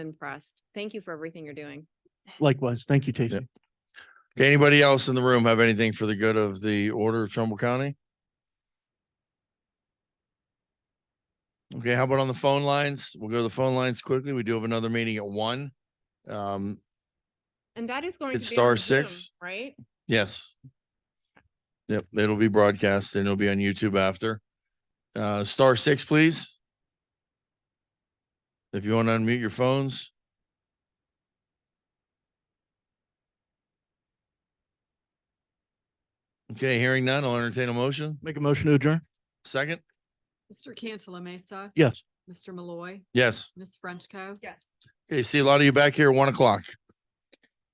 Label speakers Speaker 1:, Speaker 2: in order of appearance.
Speaker 1: impressed. Thank you for everything you're doing.
Speaker 2: Likewise. Thank you, Casey.
Speaker 3: Okay, anybody else in the room have anything for the good of the order of Trumbull County? Okay, how about on the phone lines? We'll go to the phone lines quickly. We do have another meeting at one. Um,
Speaker 1: And that is going to
Speaker 3: It's
Speaker 1: be on
Speaker 3: star
Speaker 1: Zoom,
Speaker 3: six.
Speaker 1: Right?
Speaker 3: yes. Yep, it'll be broadcast and it'll be on YouTube after. Uh, star six, please. If you want to unmute your phones. Okay, hearing none, I'll entertain a motion.
Speaker 2: Make a motion to adjourn?
Speaker 3: Second?
Speaker 4: Mr. Cantala Mesa.
Speaker 2: Yes.
Speaker 4: Mr. Malloy,
Speaker 3: Yes.
Speaker 4: Ms. Frenchco.
Speaker 1: Yes.
Speaker 3: Okay, see a lot of you back here at one o'clock.